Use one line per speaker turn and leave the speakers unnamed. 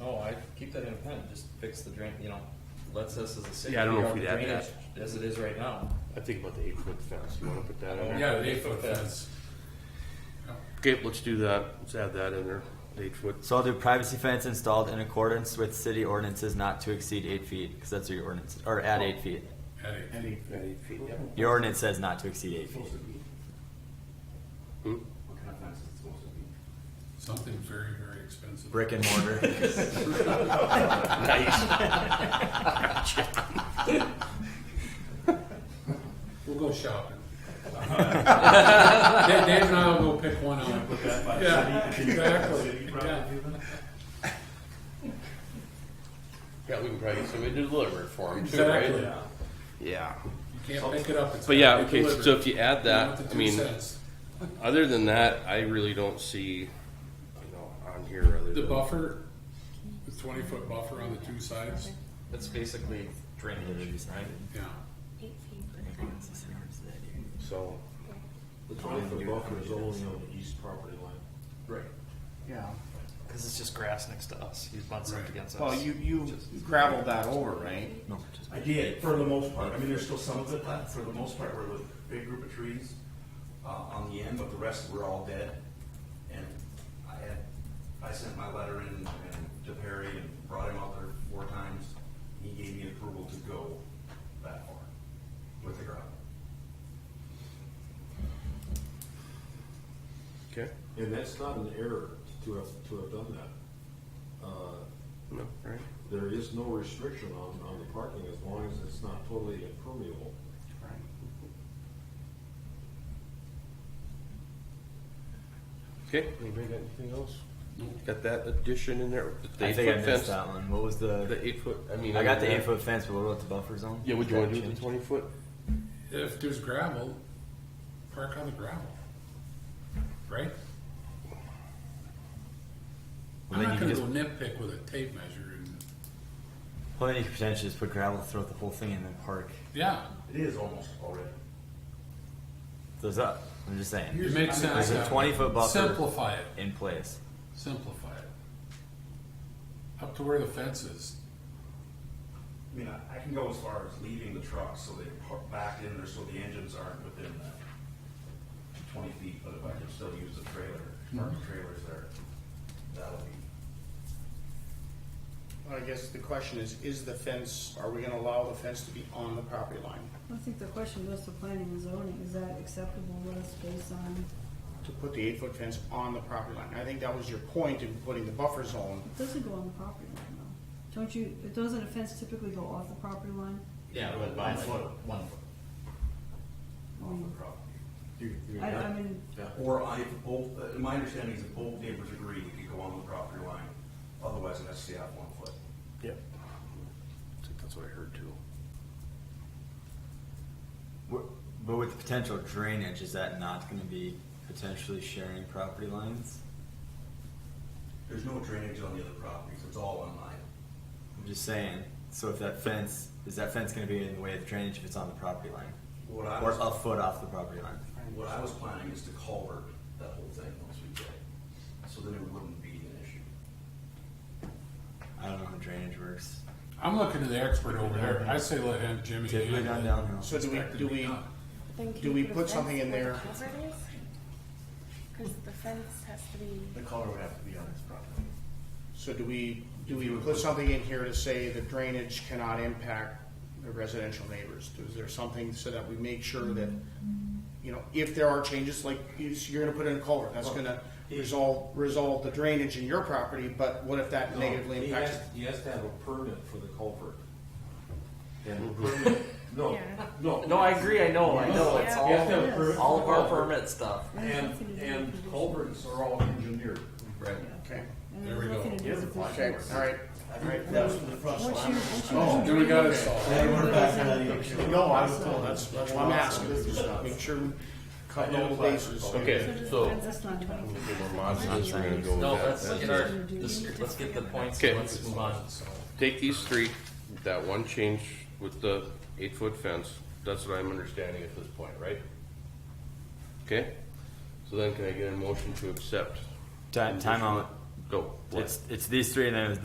oh, I keep that in pen, just fix the drain, you know, let's us as a city.
Yeah, I don't know
figure
if
out
we'd
the
add that.
drainage As it is right now.
I think about the eight foot fence, you wanna put that in there?
Yeah, the eight foot fence.
Okay, let's do that. Let's add that in there. Eight foot.
So I'll do privacy fence installed in accordance with city ordinances not to exceed eight feet, because that's what your ordinance, or at eight feet.
At eight.
At eight feet, yeah.
Your ordinance says not to exceed eight feet.
Hmm?
Something very, very expensive.
Brick and mortar.
We'll go shopping. Dave Dave and I will go pick one out. Yeah, exactly. Yeah.
Yeah, we can probably get somebody to deliver it for him too, right?
Exactly. You
Yeah.
can't pick it up. It's
But yeah,
gotta be
okay,
delivered.
so if you add
Not
that,
the
I
two
mean,
cents.
other than that, I really don't see, you know, on here other
The
than.
buffer, the twenty foot buffer on the two sides,
That's basically drainage, right?
yeah.
Eight feet for the fence.
So,
The twenty foot buffer is only on the east property line.
Right.
Yeah,
Cause it's just grass next to us, he butts
Right.
up against us.
well, you, you gravelled that over, right?
I did, for the most part. I mean, there's still some of it left, for the most part, were the big group of trees, uh, on the end, but the rest were all dead. And I had, I sent my letter in, and to Perry and brought him out there four times. He gave me approval to go that far with the gravel.
Okay.
And that's not an error to have, to have done that. Uh,
No, right.
there is no restriction on, on the parking as long as it's not totally impermeable.
Okay, anybody got anything else? Got that addition in there? The
I
eight
think I
foot
missed
fence,
that one. What was the,
the eight foot, I mean.
I got
other
the
than
eight
that-
foot fence, but what about the buffer zone?
Yeah, would you wanna
That
do with the
changed?
twenty foot?
If there's gravel, park on the gravel. Right?
Well,
I'm
then
not
you can
gonna
just,
go nitpick with a tape measure and,
well, then you could potentially just put gravel throughout the whole thing and then park
yeah,
It is almost already.
those up. I'm just saying,
it makes sense.
There's a 20-foot buffer.
Simplify it.
in place.
Simplify it. Up to where the fence is.
I mean, I, I can go as far as leaving the truck so they park back in there so the engines aren't within that twenty feet, but if I can still use the trailer, park the trailers there, that'll be,
Well, I guess the question is, is the fence, are we gonna allow the fence to be on the property line?
I think the question goes to planning and zoning, is that acceptable with us based on,
To put the eight foot fence on the property line? I think that was your point in putting the buffer zone.
it doesn't go on the property line though. Don't you, it doesn't a fence typically go off the property line?
Yeah, but by like one foot.
off the property.
Mm. I, I mean,
Or I, if both, uh, my understanding is if both neighbors agree, we could go on the property line, otherwise an SCF one foot.
Yep. I think that's what I heard too.
Wh- But with the potential drainage, is that not gonna be potentially sharing property lines?
There's no drainage on the other properties, it's all on mine.
I'm just saying, so if that fence, is that fence gonna be in the way of drainage if it's on the property line?
What I
Or
was-
a foot off the property line?
What I was planning is to culvert that whole thing once we get it, so then it wouldn't be an issue.
I don't know how drainage works.
I'm looking to the expert over there. I say let him, Jimmy.
Typically
handle
done
it.
downhill.
So do we,
Expect it
do
to be
we,
done.
Then can
Do
you
we
put a
put
fence
something in
where
there?
the culvert is? Cause the fence has to be.
The color would have to be on this property.
so do we, do we put something in here to say the drainage cannot impact the residential neighbors? Is there something so that we make sure that, you know, if there are changes, like you- you're gonna put in a culvert, that's gonna resolve, resolve the drainage in your property, but what if
Oh,
that negatively
he
impacts?
has- He has to have a permit for the culvert.
And
No,
Yeah.
no.
No, I agree, I know, I know, it's
Yeah.
all,
You have to have permit
all of
for
our
culvert.
permit stuff.
And, and culverts are all engineered. Right.
Okay,
and
There
there's
we go.
nothing to do with the
okay, all right, all right. That's
Once you, once you.
Then we got it solved.
No, I was told, that's, that's why I'm asking, just make sure we cut all the bases.
Okay, so.
That's not twenty feet.
Okay, we're mod signs, we're gonna go with
No,
that.
let's
That's-
get our, this- let's get the points,
Okay.
let's move on.
Take these three, that one change with the eight foot fence, that's what I'm understanding at this point, right? Okay, so then can I get a motion to accept?
Time, timeout.
Go.
It's, it's these three and then it was